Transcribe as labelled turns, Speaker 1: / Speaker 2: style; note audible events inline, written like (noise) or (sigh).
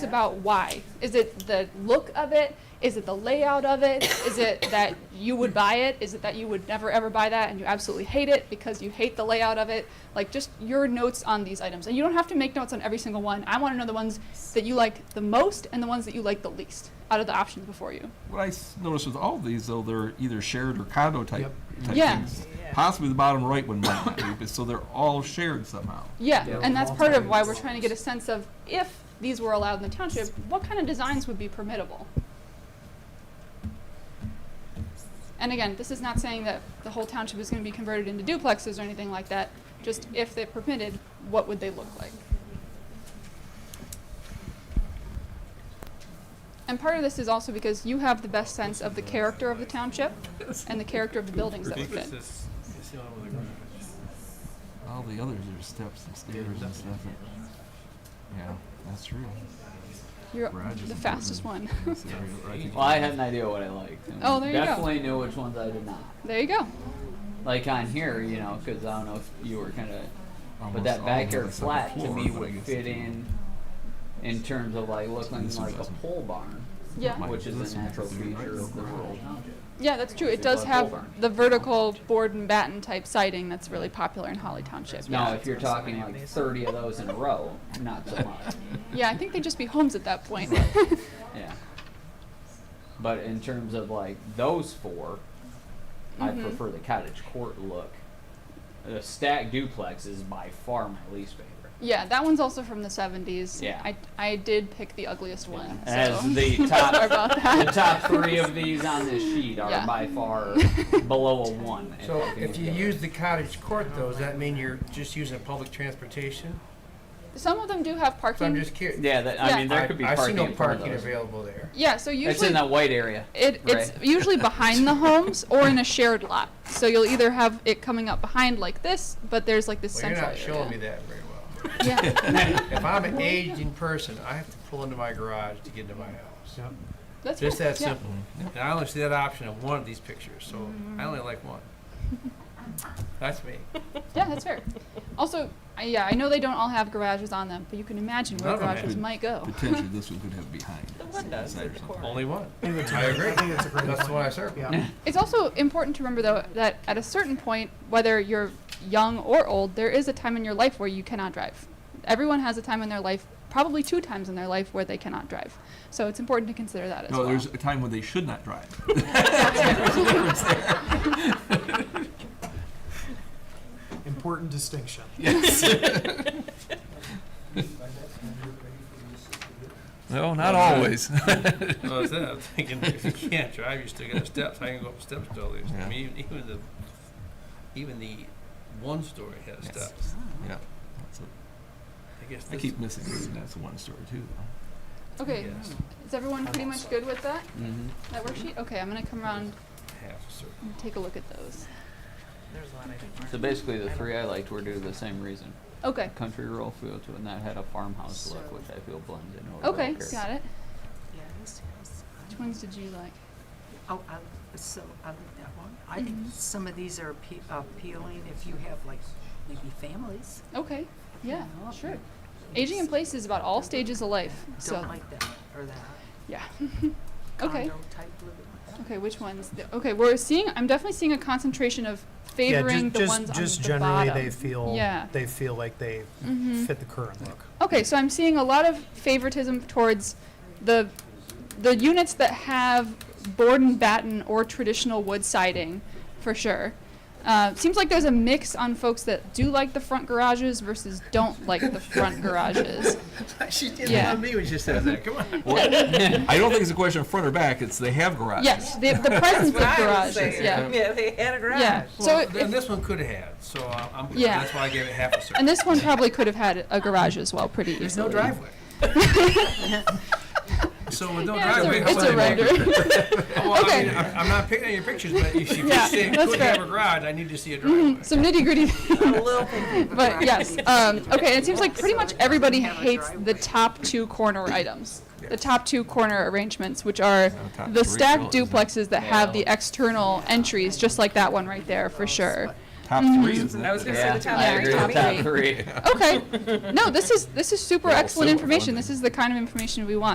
Speaker 1: It's about why. Is it the look of it? Is it the layout of it? Is it that you would buy it? Is it that you would never ever buy that and you absolutely hate it because you hate the layout of it? Like just your notes on these items. And you don't have to make notes on every single one. I want to know the ones that you like the most and the ones that you like the least out of the options before you.
Speaker 2: What I s- noticed with all these, though, they're either shared or condo type, type
Speaker 1: Yeah.
Speaker 2: things. Possibly the bottom right one might not be, but so they're all shared somehow.
Speaker 1: Yeah,
Speaker 3: Yeah,
Speaker 1: and that's
Speaker 3: multi-
Speaker 1: part of why we're trying to get a sense of if these were allowed in the township, what kind of designs would be permittable? And again, this is not saying that the whole township is going to be converted into duplexes or anything like that, just if they're permitted, what would they look like? And part of this is also because you have the best sense of the character of the township and the character of the buildings that would fit.
Speaker 2: All the others are steps and stairs and stuff. Yeah, that's true.
Speaker 1: You're
Speaker 2: Garage is
Speaker 1: the
Speaker 2: important.
Speaker 1: fastest one. (laughs)
Speaker 2: That's the area where I think-
Speaker 3: Well, I had an idea what I liked. and
Speaker 1: Oh, there you go.
Speaker 3: Definitely knew which ones I did not.
Speaker 1: There you go.
Speaker 3: Like on here, you know, because I don't know if you were kind of, but
Speaker 2: Almost all
Speaker 3: that
Speaker 2: of
Speaker 3: backyard
Speaker 2: it's on the
Speaker 3: flat to
Speaker 2: floor,
Speaker 3: me
Speaker 2: but I
Speaker 3: would
Speaker 2: guess
Speaker 3: fit
Speaker 2: it's-
Speaker 3: in, in terms of like looking
Speaker 2: This one
Speaker 3: like a
Speaker 2: doesn't.
Speaker 3: pole barn,
Speaker 1: Yeah.
Speaker 2: Mine-
Speaker 3: which is
Speaker 2: this
Speaker 3: a
Speaker 2: one
Speaker 3: natural
Speaker 2: fits in right
Speaker 3: feature
Speaker 2: in
Speaker 3: of the
Speaker 2: the
Speaker 3: rural township.
Speaker 1: Yeah, that's true. It
Speaker 3: It's
Speaker 1: does have
Speaker 3: above Bullhorn.
Speaker 1: the vertical board and batten type siding that's really popular in Holly Township.
Speaker 3: Now,
Speaker 1: yeah.
Speaker 3: if you're talking like 30 of those in a row, not so much.
Speaker 1: Yeah, I think they'd just be homes at that point.
Speaker 3: Yeah. But in terms of like those 4 I
Speaker 1: Mhm.
Speaker 3: prefer the cottage court look. The stack duplex is by far my least favorite.
Speaker 1: (laughs) yeah, that one's also from the 70s.
Speaker 3: Yeah.
Speaker 1: I, I did pick the ugliest one.
Speaker 3: As
Speaker 1: so. (laughs)
Speaker 3: the
Speaker 1: Sorry
Speaker 3: top,
Speaker 1: about
Speaker 3: the
Speaker 1: that. (laughs)
Speaker 3: top three of these on this sheet are
Speaker 1: Yeah.
Speaker 3: by
Speaker 1: (laughs)
Speaker 3: far below a one. in
Speaker 4: So
Speaker 3: looking
Speaker 4: if you
Speaker 3: together.
Speaker 4: use the cottage court though, does that mean you're just using public transportation?
Speaker 1: Some of them do have parking.
Speaker 4: So I'm just curious.
Speaker 3: yeah, that, I
Speaker 1: Yeah.
Speaker 3: mean there could be
Speaker 4: I, I see
Speaker 3: parking.
Speaker 4: no
Speaker 3: in front of
Speaker 4: parking
Speaker 3: those.
Speaker 4: available there.
Speaker 1: yeah, so usually
Speaker 3: It's in that white area.
Speaker 1: It, it's
Speaker 3: (laughs) Right.
Speaker 1: usually behind the homes or in a shared lot. So you'll either have it coming up behind like this, but there's like this
Speaker 4: Well, you're
Speaker 1: central
Speaker 4: not showing me
Speaker 1: area.
Speaker 4: that very well.
Speaker 1: Yeah.
Speaker 4: (laughs) If I'm an aging person, I have to pull into my garage to get into my house.
Speaker 1: That's
Speaker 4: Just
Speaker 1: fine.
Speaker 4: that
Speaker 1: yeah.
Speaker 4: simple. And I only see that option in one of these pictures, so I only like
Speaker 1: (laughs)
Speaker 4: one. That's me.
Speaker 1: Yeah, that's fair. Also, I, yeah, I know they don't all have garages on them, but you can imagine where
Speaker 4: None of them
Speaker 1: garages
Speaker 2: have.
Speaker 1: might
Speaker 3: Oh.
Speaker 1: go.
Speaker 2: Potentially, this one could have behind. The
Speaker 5: windows at the corner.
Speaker 4: Only one. I agree. That's the one I serve.
Speaker 5: Yeah.
Speaker 1: It's also important to remember, though, that at a certain point, whether you're young or old, there is a time in your life where you cannot drive. Everyone has a time in their life, probably two times in their life, where they cannot drive. So it's important to consider that as
Speaker 2: No,
Speaker 1: well.
Speaker 2: there's a time when they should not drive.
Speaker 5: Important distinction.
Speaker 2: No, not always.
Speaker 4: Well, that's it. I'm thinking, if you can't drive, you still got the steps. I can go up the steps to all these.
Speaker 2: Yeah.
Speaker 4: I mean, even, even the, even the one story has
Speaker 2: Yes.
Speaker 4: steps.
Speaker 2: Yeah, that's it.
Speaker 4: I guess
Speaker 2: I
Speaker 4: this
Speaker 2: keep missing it, and that's one story too,
Speaker 1: (laughs)
Speaker 2: though.
Speaker 1: okay,
Speaker 4: Yes.
Speaker 1: is everyone pretty much good with that?
Speaker 3: (laughs) Mm-hmm.
Speaker 1: That worksheet? Okay, I'm going to come around
Speaker 4: half a circle.
Speaker 1: and take a look at those.
Speaker 5: There's a lot I didn't learn.
Speaker 3: So basically, the three I liked were due to the same reason:
Speaker 1: Okay,
Speaker 3: country rural fields, and that had a farmhouse look, which I feel blends in. over
Speaker 1: okay,
Speaker 3: here.
Speaker 1: got it.
Speaker 5: Yeah, these guys.
Speaker 1: Which ones did you like?
Speaker 5: Oh, I, so I like that one. I
Speaker 1: Mm-hmm.
Speaker 5: think some of these are appe- appealing if you have like maybe families.
Speaker 1: Okay, yeah,
Speaker 5: No.
Speaker 1: sure. Aging in place is about all stages of life. So
Speaker 5: Don't like that or that.
Speaker 1: yeah. (laughs) okay.
Speaker 5: Condo type living.
Speaker 1: Okay, which ones? The- Okay, we're seeing. I'm definitely seeing a concentration of favoring the ones on
Speaker 6: just
Speaker 1: the
Speaker 6: generally
Speaker 1: bottom.
Speaker 6: they feel
Speaker 1: Yeah.
Speaker 6: they feel like they
Speaker 1: Mhm.
Speaker 6: fit the current look.
Speaker 1: Okay, so I'm seeing a lot of favoritism towards the the units that have board and batten or traditional wood siding, for sure. Uh, seems like there's a mix on folks that do like the front garages versus don't like the front
Speaker 5: (laughs)
Speaker 1: garages.
Speaker 4: (laughs) She did
Speaker 1: Yeah.
Speaker 4: me when she says that. Come on.
Speaker 2: (laughs) I don't think it's a question of front or back, it's they have garages.
Speaker 1: Yes, the, the presence of garages.
Speaker 5: saying.
Speaker 1: Yeah,
Speaker 5: Yeah, they had a garage.
Speaker 1: yeah. So
Speaker 4: Well,
Speaker 1: if-
Speaker 4: and this one could have had, so I- I'm,
Speaker 1: Yeah.
Speaker 4: that's why I gave it half a circle.
Speaker 1: and this one probably could have had a garage as well, pretty easily.
Speaker 4: There's no driveway.
Speaker 1: (laughs)
Speaker 4: So with no
Speaker 1: Yeah,
Speaker 4: driveway,
Speaker 1: it's a, it's
Speaker 4: how
Speaker 1: a
Speaker 4: am I gonna-
Speaker 1: render.
Speaker 4: (laughs) Well, I
Speaker 1: Okay.
Speaker 4: mean, I'm, I'm not picking on your pictures, but if you
Speaker 1: Yeah,
Speaker 4: say it
Speaker 1: that's
Speaker 4: could
Speaker 1: fair. Mm-hmm.
Speaker 4: have a garage, I need to see a
Speaker 1: (laughs)
Speaker 4: driveway.
Speaker 1: Some nitty gritty.
Speaker 5: A little thing.
Speaker 1: (laughs) But yes, um, okay, it seems like pretty
Speaker 5: So
Speaker 1: much
Speaker 5: it doesn't
Speaker 1: everybody
Speaker 5: have a
Speaker 1: hates the
Speaker 5: driveway.
Speaker 1: top two corner items. The top two corner arrangements, which are
Speaker 2: top
Speaker 1: the
Speaker 2: three
Speaker 1: stacked
Speaker 2: really, isn't it?
Speaker 1: duplexes that have the external entries, just like that one right there, for sure.
Speaker 2: top three is
Speaker 6: Mm-hmm. I was gonna say
Speaker 3: Yeah,
Speaker 6: the top
Speaker 3: I
Speaker 6: three.
Speaker 3: agree with
Speaker 1: Top
Speaker 3: top three.
Speaker 1: Okay. No, this is this is super
Speaker 2: They're all
Speaker 1: excellent
Speaker 2: similar, aren't
Speaker 1: information.
Speaker 2: they?
Speaker 1: This is the kind of information we want.